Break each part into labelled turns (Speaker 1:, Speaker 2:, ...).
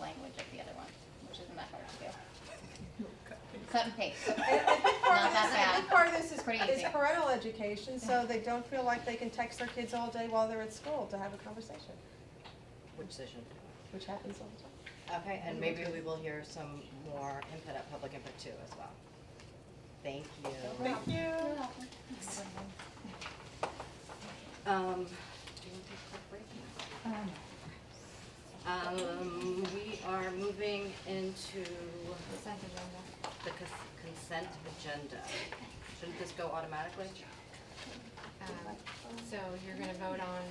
Speaker 1: language of the other one, which isn't that hard to do. Cut and paste.
Speaker 2: And a big part
Speaker 1: Not
Speaker 2: of this,
Speaker 1: that
Speaker 2: a big
Speaker 1: bad.
Speaker 2: part of this
Speaker 1: Pretty
Speaker 2: is, is
Speaker 1: easy.
Speaker 2: parental education, so they don't feel like they can text their kids all day while they're at school to have a conversation,
Speaker 3: Which decision?
Speaker 2: which happens all the time.
Speaker 3: Okay, and maybe we will hear some more input at public input too as well. Thank you.
Speaker 2: Thank you.
Speaker 3: Um, do you want to take a quick break? Um, we are moving into the cons- consent agenda. Shouldn't this go automatically?
Speaker 4: Um, So you're gonna vote on,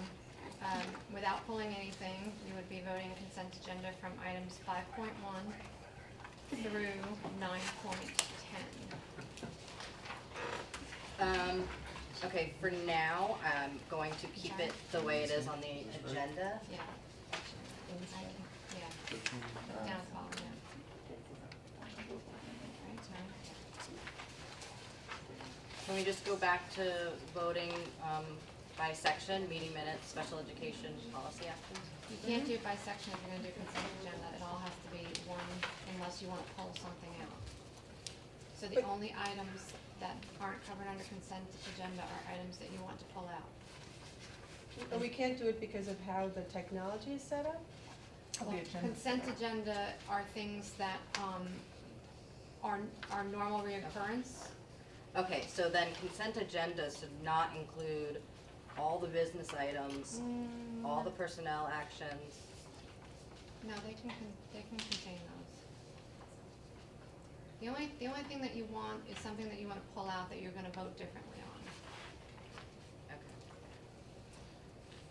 Speaker 4: um, without pulling anything, you would be voting consent agenda from items five point one through nine point ten.
Speaker 3: Um, okay, for now, I'm going to keep it the way it is on the agenda.
Speaker 4: Yeah. Yeah. Down at the bottom, yeah. Right, so-
Speaker 3: Can we just go back to voting, um, by section, meeting minutes, special education, policy actions?
Speaker 4: You can't do it by section if you're gonna do consent agenda, it all has to be one unless you wanna pull something out. So the only items that aren't covered under consent agenda are items that you want to pull out.
Speaker 2: But we can't do it because of how the technology is set up?
Speaker 4: Well, Consent agenda are things that, um, are, are normal reoccurrence.
Speaker 3: Okay, so then consent agendas should not include all the business items, all the personnel actions.
Speaker 4: No, they can, con- they can contain those. The only, the only thing that you want is something that you wanna pull out that you're gonna vote differently on.
Speaker 3: Okay.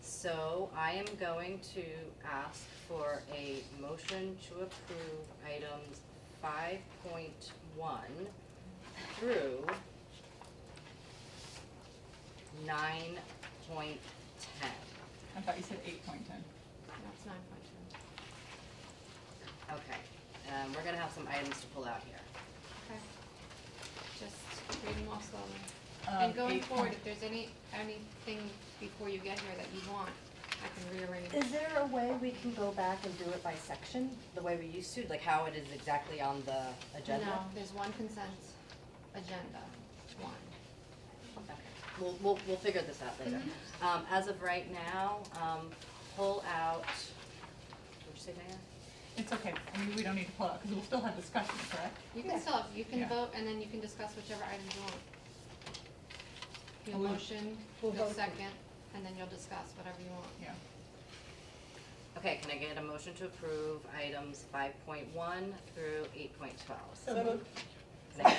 Speaker 3: So I am going to ask for a motion to approve items five point one through nine point ten.
Speaker 5: I thought you said eight point ten.
Speaker 4: That's nine point two.
Speaker 3: Okay, um, we're gonna have some items to pull out here.
Speaker 4: Okay. Just read them off slowly.
Speaker 5: Um,
Speaker 4: And going
Speaker 5: eight
Speaker 4: forward,
Speaker 5: point-
Speaker 4: if there's any, anything before you get here that you want, I can rearrange.
Speaker 3: Is there a way we can go back and do it by section, the way we used to, like how it is exactly on the agenda?
Speaker 4: No, there's one consent agenda, one.
Speaker 3: Okay, we'll, we'll, we'll figure this out later.
Speaker 4: Mm-hmm.
Speaker 3: Um, as of right now, um, pull out, what'd you say, Diane?
Speaker 5: It's okay, I mean, we don't need to pull out, because we'll still have discussion, correct?
Speaker 4: You can still, you can
Speaker 5: Yeah.
Speaker 4: vote and then you can discuss whichever items you want. Your
Speaker 5: We'll-
Speaker 4: motion,
Speaker 2: we'll
Speaker 4: your
Speaker 2: vote.
Speaker 4: second, and then you'll discuss whatever you want.
Speaker 5: Yeah.
Speaker 3: Okay, can I get a motion to approve items five point one through eight point twelve?
Speaker 2: So moved.
Speaker 4: Oh,
Speaker 5: I'm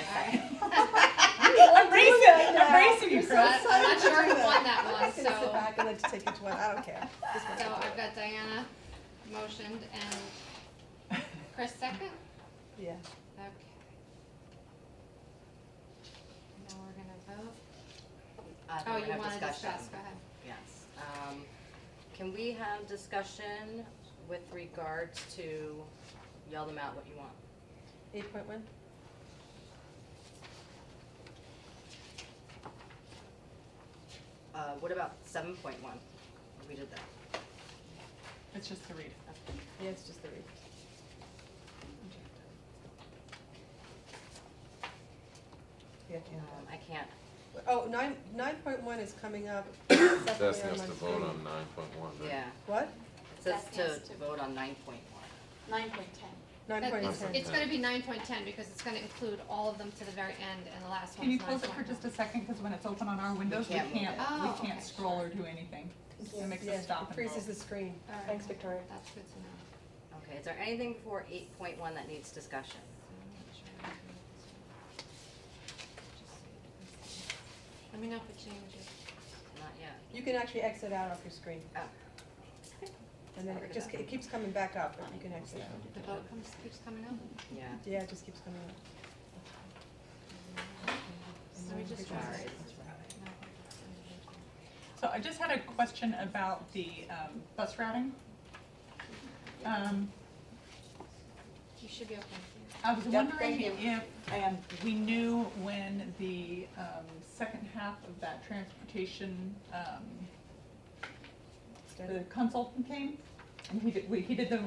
Speaker 5: bracing,
Speaker 2: that now.
Speaker 5: I'm bracing you,
Speaker 2: You're so
Speaker 5: Chris.
Speaker 4: I'm not sure who won that
Speaker 2: I
Speaker 4: one,
Speaker 1: Uh,
Speaker 2: can sit
Speaker 4: so,
Speaker 2: back and let you take each one, I don't care. Just one.
Speaker 4: so I've got Diana motioned and Chris second?
Speaker 2: Yeah.
Speaker 4: Okay. Now we're gonna vote.
Speaker 3: Uh,
Speaker 4: Oh, you wanna discuss, go ahead.
Speaker 3: Yes, um, can we have discussion with regards to, yell them out what you want?
Speaker 2: Eight point one?
Speaker 3: Uh, what about seven point one? We did that.
Speaker 5: It's just to read.
Speaker 2: Yeah, it's just the read. Yeah,
Speaker 3: Um, I can't,
Speaker 2: Oh, nine, nine point one is coming up separately
Speaker 6: Destiny
Speaker 2: on
Speaker 6: has
Speaker 2: my
Speaker 6: to
Speaker 2: screen.
Speaker 6: vote on nine point one, right?
Speaker 3: yeah,
Speaker 2: What?
Speaker 3: it says
Speaker 7: That has
Speaker 3: to
Speaker 7: to-
Speaker 3: vote on nine point one.
Speaker 7: Nine point ten.
Speaker 2: Nine
Speaker 4: That-
Speaker 2: point
Speaker 4: it's-
Speaker 2: ten.
Speaker 4: It's gonna be nine point ten because it's gonna include all of them to the very end and the last
Speaker 5: Can you
Speaker 4: one's
Speaker 5: close it for
Speaker 4: 9.1.
Speaker 5: just a second, because when it's open on our windows, we
Speaker 3: can't move
Speaker 5: can't,
Speaker 4: it. Oh,
Speaker 5: we
Speaker 4: okay.
Speaker 5: can't scroll or do anything. It makes us stop and
Speaker 2: It freezes the
Speaker 5: go.
Speaker 2: screen.
Speaker 4: All right.
Speaker 2: Thanks, Victoria.
Speaker 4: That's good to know.
Speaker 3: Okay, is there anything before eight point one that needs discussion?
Speaker 4: Let me know if it changes.
Speaker 3: Not yet.
Speaker 2: You can actually exit out off your screen,
Speaker 3: Oh,
Speaker 2: and then it just, it keeps coming back up, but you can exit out.
Speaker 4: The vote comes, keeps coming
Speaker 5: Mm-hmm.
Speaker 4: up.
Speaker 3: yeah.
Speaker 2: Yeah, it just keeps coming up.
Speaker 4: Let me
Speaker 5: Mm-hmm.
Speaker 4: just try.
Speaker 3: Sorry.
Speaker 5: So I just had a question about the, um, bus routing. Um,
Speaker 4: You should be okay.
Speaker 5: I was wondering
Speaker 7: thank you.
Speaker 5: if, and we knew when the, um, second half of that transportation, um,
Speaker 2: Instead of-
Speaker 5: the consultant came, and he did, we, he did the